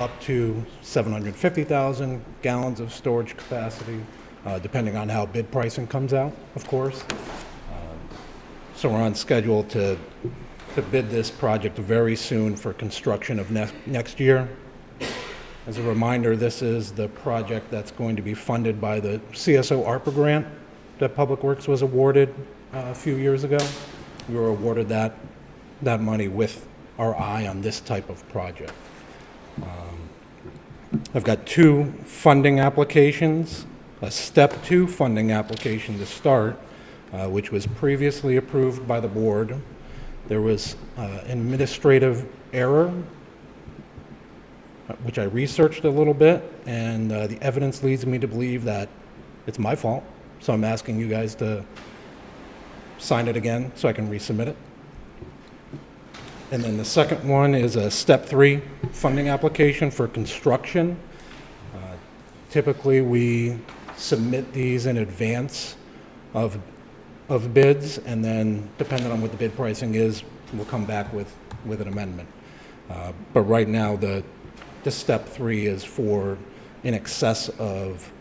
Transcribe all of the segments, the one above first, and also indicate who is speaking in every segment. Speaker 1: up to 750,000 gallons of storage capacity, uh, depending on how bid pricing comes out, of course. Um, So we're on schedule to, to bid this project very soon for construction of next, next year. As a reminder, this is the project that's going to be funded by the CSO ARPA grant that Public Works was awarded uh, a few years ago. We were awarded that, that money with our eye on this type of project. Um, I've got two funding applications, a step two funding application to start, uh, which was previously approved by the board. There was uh, administrative error uh, which I researched a little bit, and uh, the evidence leads me to believe that it's my fault. So I'm asking you guys to sign it again so I can resubmit it. And then the second one is a step three funding application for construction. Uh, Typically, we submit these in advance of, of bids, and then depending on what the bid pricing is, we'll come back with, with an amendment. Uh, But right now, the, the step three is for in excess of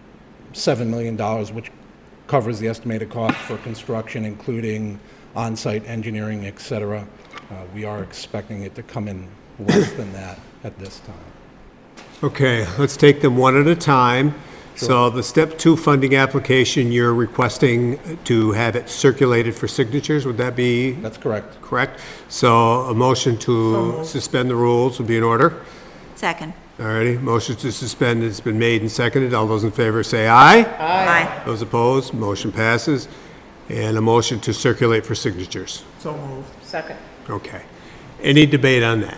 Speaker 1: $7 million, which covers the estimated cost for construction, including on-site engineering, et cetera. Uh, We are expecting it to come in less than that at this time.
Speaker 2: Okay, let's take them one at a time. So the step two funding application, you're requesting to have it circulated for signatures, would that be
Speaker 1: That's correct.
Speaker 2: correct? So a motion to suspend the rules would be in order.
Speaker 3: Second.
Speaker 2: All righty, motion to suspend has been made and seconded. All those in favor say aye.
Speaker 3: Aye.
Speaker 2: Those opposed, motion passes. And a motion to circulate for signatures.
Speaker 4: So moved. Second.
Speaker 2: Okay. Any debate on that?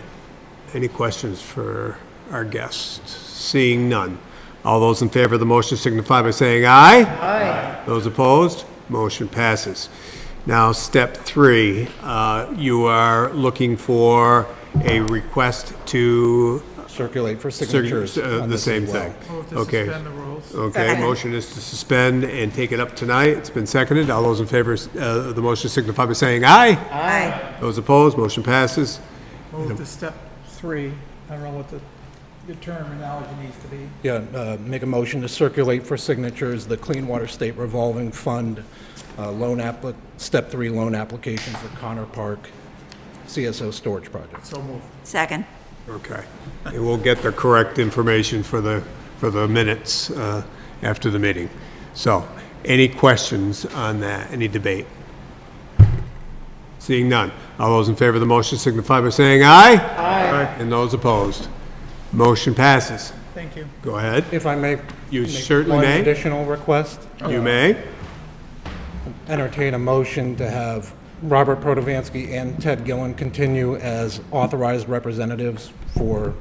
Speaker 2: Any questions for our guests? Seeing none. All those in favor of the motion signify by saying aye. Aye. Those opposed, motion passes. Now, step three, uh, you are looking for a request to...
Speaker 1: Circulate for
Speaker 2: circu-
Speaker 1: signatures
Speaker 2: uh,
Speaker 1: on
Speaker 2: The
Speaker 1: this
Speaker 2: same
Speaker 1: as well.
Speaker 2: thing.
Speaker 4: Move to
Speaker 2: Okay. Uh,
Speaker 4: suspend the rules.
Speaker 2: Okay,
Speaker 3: Second.
Speaker 2: motion is to suspend and take it up tonight. It's been seconded. All those in favor uh, of the motion signify by saying aye.
Speaker 3: Aye.
Speaker 2: Those opposed, motion passes.
Speaker 4: Move to step three. I don't know what the, your terminology needs to be.
Speaker 1: Yeah, uh, make a motion to circulate for signatures the Clean Water State Revolving Fund uh, loan appli, step three loan application for Connor Park CSO Storage Project.
Speaker 4: So moved.
Speaker 3: Second.
Speaker 2: Okay. And we'll get the correct information for the, for the minutes uh, after the meeting. So, any questions on that, any debate? Seeing none. All those in favor of the motion signify by saying aye. Aye. And those opposed. Motion passes.
Speaker 4: Thank you.
Speaker 2: Go ahead.
Speaker 1: If I may.
Speaker 2: You
Speaker 1: make
Speaker 2: certainly
Speaker 1: One
Speaker 2: may.
Speaker 1: additional request.
Speaker 2: You may.
Speaker 1: entertain a motion to have Robert Protovansky and Ted Gillen continue as authorized representatives for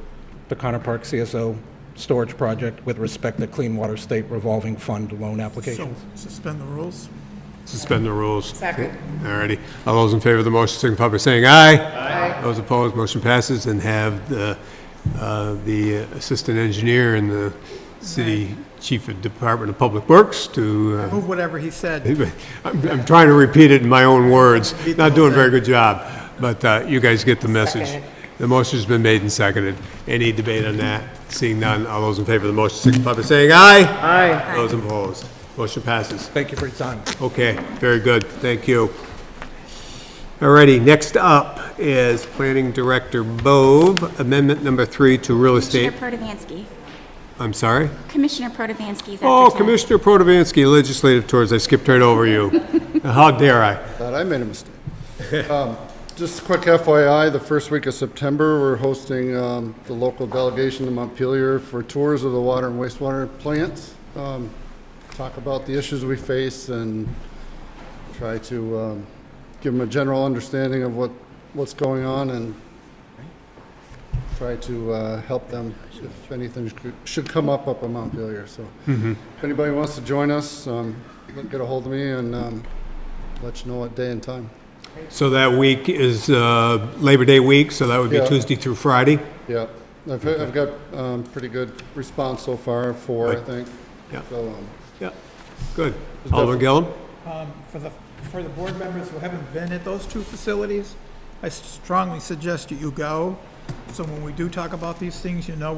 Speaker 1: the Connor Park CSO storage project with respect to Clean Water State Revolving Fund loan
Speaker 4: So
Speaker 1: applications.
Speaker 4: suspend the rules.
Speaker 2: Suspend the rules. Second. All righty. All those in favor of the motion signify by saying aye. Aye. Those opposed, motion passes, and have the, uh, the assistant engineer and the city chief of Department of Public Works to,
Speaker 4: Move whatever he
Speaker 2: uh,
Speaker 4: said.
Speaker 2: I'm I'm trying to repeat it in my own words, not doing a very good job, but uh, you guys get the message. The motion's been made and seconded. Any debate on that? Seeing none, all those in favor of the motion signify by saying aye. Aye. Those opposed, motion passes.
Speaker 1: Thank you for your time.
Speaker 2: Okay, very good, thank you. Alrighty, next up is Planning Director Bove, amendment number three to real estate,
Speaker 5: Commissioner Protavansky.
Speaker 2: I'm sorry?
Speaker 5: Commissioner Protavansky's after
Speaker 2: Oh,
Speaker 5: time.
Speaker 2: Commissioner Protovansky, Legislative Tours, I skipped right over you. How dare I?
Speaker 6: Thought I made a mistake. Um, Just a quick FYI, the first week of September, we're hosting um, the local delegation to Montpelier for tours of the water and wastewater plants. Um, Talk about the issues we face and try to um, give them a general understanding of what, what's going on and try to uh, help them if anything should- should come up up in Montpelier, so. If anybody wants to join us, um, get a hold of me and um, let you know what day and time.
Speaker 2: So that week is uh, Labor Day week, so that would be
Speaker 6: Yeah.
Speaker 2: Tuesday through Friday?
Speaker 6: Yeah, I've, I've got, um, pretty good response so far, four, I think.
Speaker 2: Yeah.
Speaker 6: So, um,
Speaker 2: Yeah. Good. Alderman Gillum?
Speaker 4: Um, for the, for the board members who haven't been at those two facilities, I strongly suggest that you go. So when we do talk about these things, you know